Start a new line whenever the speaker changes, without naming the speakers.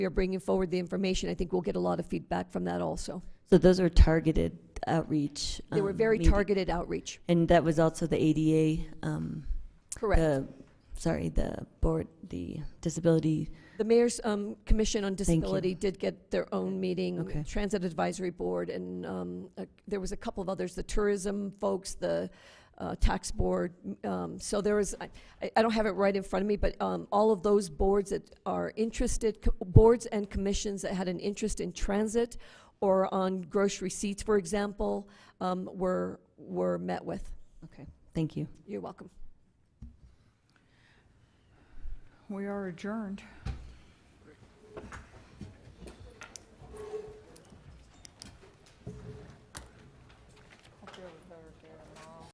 we are bringing forward the information. I think we'll get a lot of feedback from that also.
So those are targeted outreach.
They were
um,
very
meeting-
targeted outreach.
And that was also the ADA, um,
Correct.
the, sorry, the board, the disability,
The Mayor's um, Commission on
you.
Disability did get their own
Okay.
meeting, Transit Advisory Board, and um, uh, there was a couple of others, the tourism folks, the uh, tax board. um, So there was, I- I- I don't have it right in front of me, but um, all of those boards that are interested, co- boards and commissions that had an interest in transit or on grocery receipts, for example, um, were, were met with.
thank you.
You're welcome.
We are adjourned.